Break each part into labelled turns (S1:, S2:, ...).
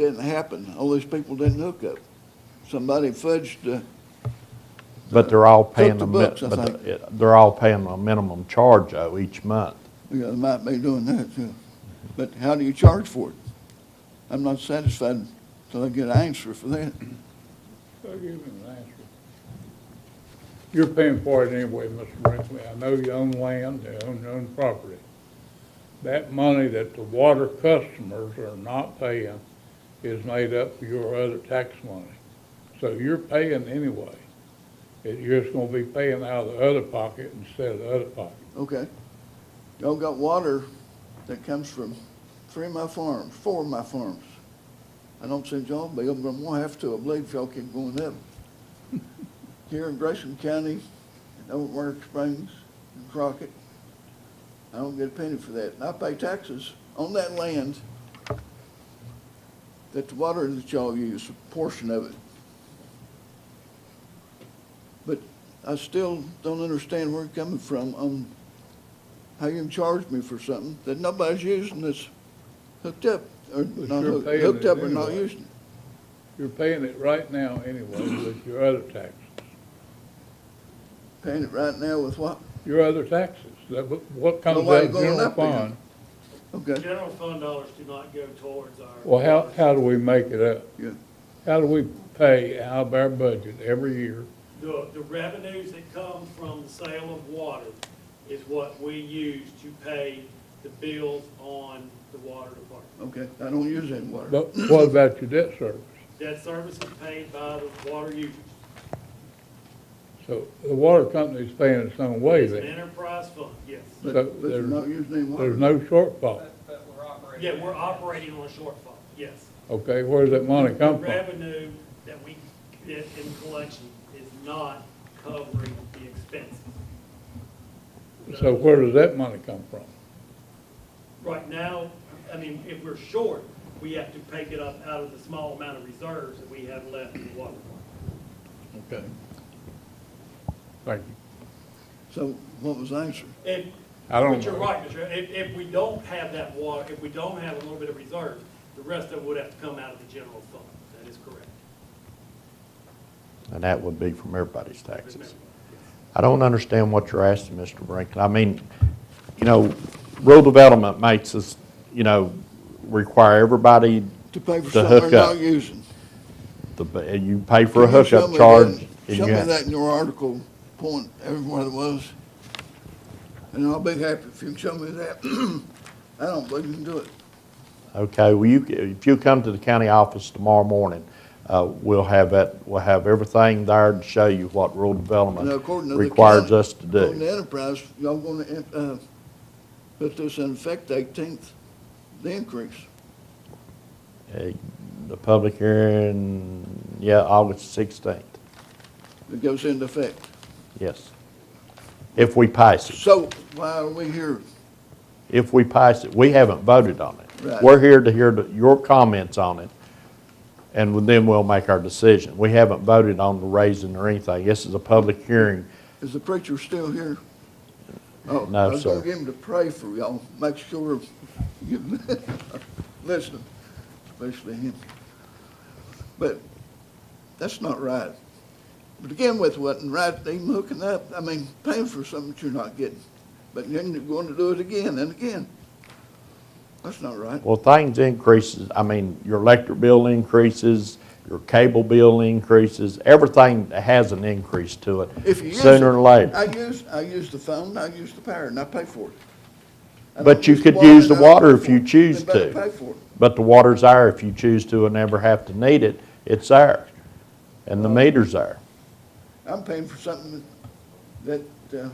S1: didn't happen. All these people didn't hook up. Somebody fudged uh, the,
S2: But they're all paying
S1: the
S2: the, min-
S1: books, I
S2: but
S1: think.
S2: the- it- they're all paying a minimum charge though each month.
S1: yeah, they might be doing that too. But how do you charge for it? I'm not satisfied till I get an answer for that.
S3: I'll give him an answer. You're paying for it anyway, Mr. Brinkley. I know you own land, you own, own property. That money that the water customers are not paying is made up for your other tax money. So you're paying anyway. It- You're just gonna be paying out of the other pocket instead of the other pocket.
S1: Okay. Y'all got water that comes from three of my farms, four of my farms. I don't see y'all bill, but I'm gonna have to, I believe if y'all keep going up. Here in Grayson County, in Overmark Springs, and Crockett, I don't get a penny for that. And I pay taxes on that land that the water that y'all use, a portion of it. But I still don't understand where you're coming from on how you can charge me for something that nobody's using that's hooked up or
S3: But
S1: not
S3: you're
S1: hooked,
S3: paying
S1: hooked
S3: it
S1: up or not
S3: anyway.
S1: using.
S3: You're paying it right now anyway with your other taxes.
S1: Paying it right now with what?
S3: Your other taxes, that, what- what comes
S1: Nobody
S3: out of
S1: going
S3: general
S1: up there.
S3: fund?
S1: Okay,
S4: General fund dollars do not go towards our.
S3: Well, how, how do we make it up?
S1: yeah.
S3: How do we pay out of our budget every year?
S4: The, the revenues that come from the sale of water is what we use to pay the bills on the water department.
S1: Okay, I don't use any water.
S3: But what about your debt service?
S4: That service is paid by the water users.
S3: So the water company's paying its own way
S4: It's an
S3: then.
S4: enterprise fund, yes.
S1: But,
S3: So
S1: but you're
S3: there's-
S1: not using any water.
S3: There's no shortfall.
S5: But, but we're operating.
S4: Yeah, we're operating on a shortfall, yes.
S3: Okay, where does that money
S4: The
S3: come from?
S4: revenue that we get in collection is not covering the expenses.
S3: So where does that money come from?
S4: Right now, I mean, if we're short, we have to pick it up out of the small amount of reserves that we have left in the water fund.
S3: Okay. Thank you.
S1: So what was the answer?
S4: If,
S3: I don't
S4: but you're
S3: know.
S4: right, Mr. Chairman. if, if we don't have that water, if we don't have a little bit of reserve, the rest of it would have to come out of the general fund. That is correct.
S2: And that would be from everybody's taxes.
S4: Remember.
S2: I don't understand what you're asking, Mr. Brinkley. I mean, you know, rural development makes us, you know, require everybody
S1: To pay for
S2: To
S1: something they're
S2: hook
S1: not
S2: up.
S1: using.
S2: to, ba- and you pay for a
S1: Can you show
S2: hookup
S1: me
S2: charge.
S1: that-
S2: and
S1: Show
S2: you
S1: me
S2: have-
S1: that in your article, point everywhere it was. And I'll be happy if you can show me that. I don't believe you can do it.
S2: Okay, well, you, if you come to the county office tomorrow morning, uh, we'll have that, we'll have everything there to show you what rural
S1: Now,
S2: development
S1: according to the
S2: requires
S1: county-
S2: us to
S1: According to
S2: do.
S1: Enterprise, y'all gonna, uh, put this in effect eighteenth, the increase.
S2: Uh, The public hearing, yeah, August sixteenth,
S1: It goes into effect.
S2: yes. If we pass it,
S1: So why are we here?
S2: if we pass it, we haven't voted on
S1: Right.
S2: it. We're here to hear the- your comments on it, and then we'll make our decision. We haven't voted on the raising or anything. This is a public hearing.
S1: Is the preacher still here? Oh,
S2: No,
S1: I was gonna
S2: sir.
S1: get him to pray for y'all, make sure, you listen, especially him. But that's not right. To begin with, wasn't right, even hooking up, I mean, paying for something that you're not getting. But then you're going to do it again and again. That's not right.
S2: Well, things increases, I mean, your electric bill increases, your cable bill increases, everything has an increase to it,
S1: If you use
S2: sooner
S1: it-
S2: or later.
S1: I use, I use the phone, I use the power, and I pay for it. I
S2: But
S1: don't
S2: you
S1: the
S2: could
S1: water,
S2: use
S1: and
S2: the
S1: I don't
S2: water
S1: pay
S2: if
S1: for
S2: you
S1: it.
S2: choose
S1: Then better
S2: to.
S1: Pay for it.
S2: But the water's there if you choose to and never have to need it, it's there. And the meter's there.
S1: I'm paying for something that that, uh,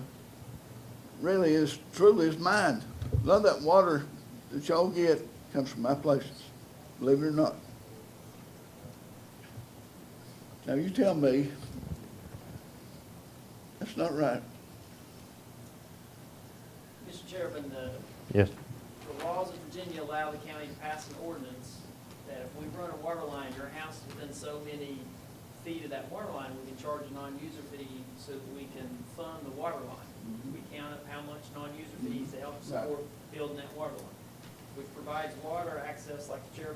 S1: really is, truly is mine. A lot of that water that y'all get comes from my places, believe it or not. Now, you tell me, that's not right.
S5: Mr. Chairman, the,
S2: Yes,
S5: the laws of Virginia allow the county to pass an ordinance that if we run a water line, your house is within so many feet of that water line, we can charge a non-user fee so that we can fund the water line. We count up how much non-user fees to help support building that water line, which provides water access, like the chairman